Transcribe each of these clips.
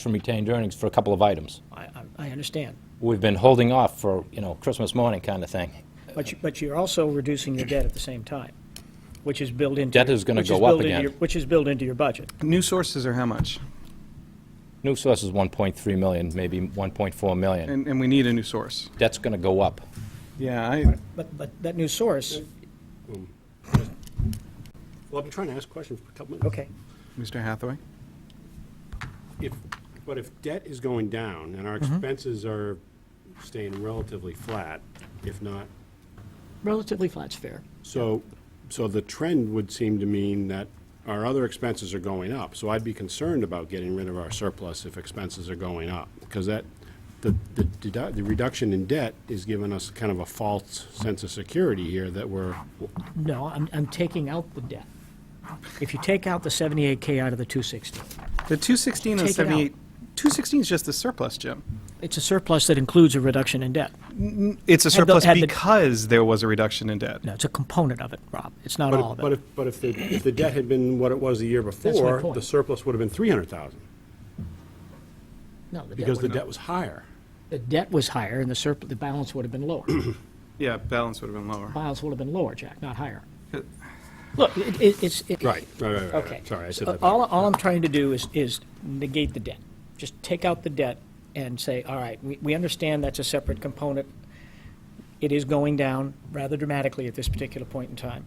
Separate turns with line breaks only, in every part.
from retained earnings for a couple of items.
I, I- I understand.
We've been holding off for, you know, Christmas morning kind of thing.
But you, but you're also reducing your debt at the same time, which is built into.
Debt
your-
is gonna
which
go up
built into
again.
your- Which is built into your budget.
New sources are how much?
New source is 1.3 million, maybe 1.4 million.
And, and we need a new source.
That's going to go up.
Yeah, I,
But, but that new source,
Well, I've been trying to ask questions for a couple minutes.
okay,
Mr. Hathaway?
If, but if debt is going down and our expenses are staying relatively flat, if not,
relatively flat's fair.
so, so the trend would seem to mean that our other expenses are going up. So I'd be concerned about getting rid of our surplus if expenses are going up, because that, the, the dedu- the reduction in debt is giving us kind of a false sense of security here that we're,
No, I'm, I'm taking out the debt. If you take out the 78K out of the 260,
The 216 and
Take it out.
78, 216 is just the surplus, Jim.
it's a surplus that includes a reduction in debt.
It's
Had the-
a surplus
had the-
because there was a reduction in debt.
No, it's a component of it, Rob. It's not all
but if,
of
but
it.
if, but if the, if the debt had been what it was the year
my
before, the
point.
surplus would have been 300,000,
No, the debt
because the
would've-
debt was higher.
The debt was higher and the surplus, the balance would have been lower.
Yeah, balance would have been lower.
Balance would have been lower, Jack, not higher. Look, it- it- it's. it-
Uh, Right, right, right, right, right.
Okay.
Sorry, I
So
said that.
All,
back.
all I'm trying to do is, is negate the debt. Just take out the debt and say, all right, we, we understand that's a separate component. It is going down rather dramatically at this particular point in time.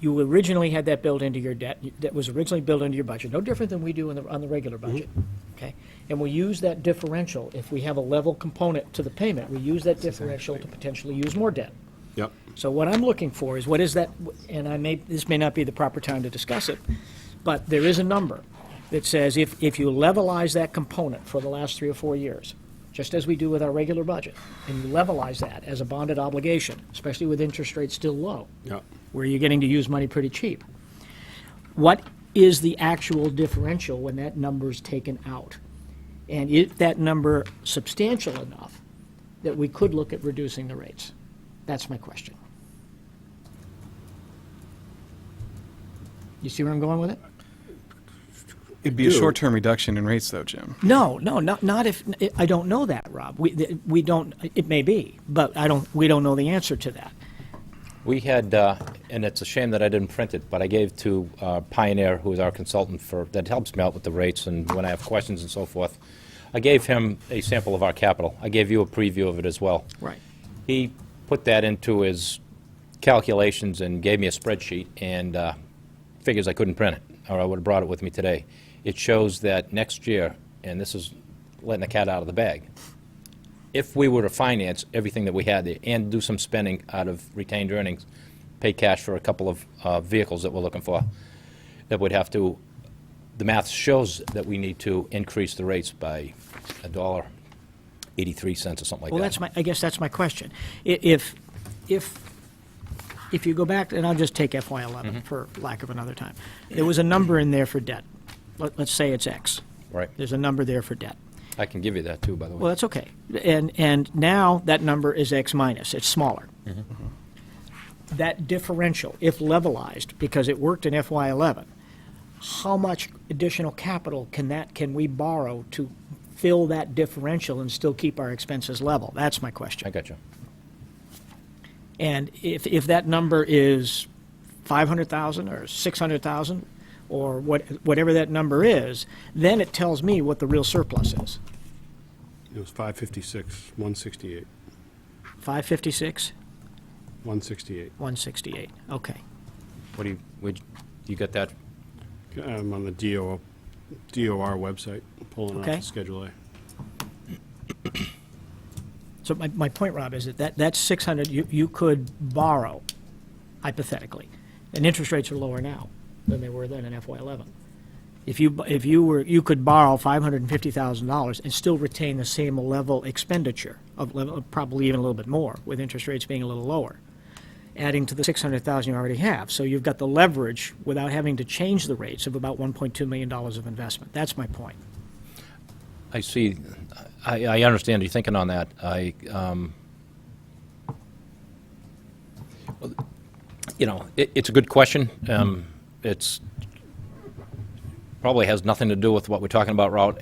You originally had that built into your debt, that was originally built into your budget, no different than we do in the, on the regular
Mm-hmm.
budget, okay? And we use that differential, if we have a level component to the payment, we use that differential to potentially use more debt.
Yep.
So what I'm looking for is what is that, and I may, this may not be the proper time to discuss it, but there is a number that says if, if you levelize that component for the last three or four years, just as we do with our regular budget, and you levelize that as a bonded obligation, especially with interest rates still low,
Yep.
where you're getting to use money pretty cheap, what is the actual differential when that number is taken out? And is that number substantial enough that we could look at reducing the rates? That's my question. You see where I'm going with it?
It'd be a
Dude.
short-term reduction in rates, though, Jim.
No, no, not, not if, I don't know that, Rob. We, th- we don't, it may be, but I don't, we don't know the answer to that.
We had, uh, and it's a shame that I didn't print it, but I gave to uh, Pioneer, who is our consultant for, that helps me out with the rates and when I have questions and so forth. I gave him a sample of our capital. I gave you a preview of it as well.
Right.
He put that into his calculations and gave me a spreadsheet and uh, figures I couldn't print it, or I would have brought it with me today. It shows that next year, and this is letting the cat out of the bag, if we were to finance everything that we had there and do some spending out of retained earnings, pay cash for a couple of uh, vehicles that we're looking for, that would have to, the math shows that we need to increase the rates by a dollar, 83 cents or something like that.
Well, that's my, I guess that's my question. I- If, if, if you go back, and I'll just take FY eleven for lack of another time. There was a number in there for debt. Let, let's say it's X.
Right.
There's a number there for debt.
I can give you that too, by the way.
Well, that's okay. And, and now that number is X minus, it's smaller. Mm-hmm. That differential, if levelized, because it worked in FY eleven, how much additional capital can that, can we borrow to fill that differential and still keep our expenses level? That's my question.
I got you.
And if, if that number is 500,000 or 600,000 or what, whatever that number is, then it tells me what the real surplus is.
It was 556, 168,
556,
168.
168. Okay.
What do you, would, you got that?
I'm um, on the DOR, DOR website, pulling
Okay.
off the Schedule A.
So my, my point, Rob, is that, that that's 600 you, you could borrow hypothetically. And interest rates are lower now than they were then in FY11. If you, bu- if you were, you could borrow $550,000 and still retain the same level expenditure of level, probably even a little bit more with interest rates being a little lower, adding to the 600,000 you already have. So you've got the leverage without having to change the rates of about $1.2 million of investment. That's my point.
I see, I, I understand you thinking on that. I, um, well, you know, it, it's a good question. Um, it's probably has nothing to do with what we're talking about route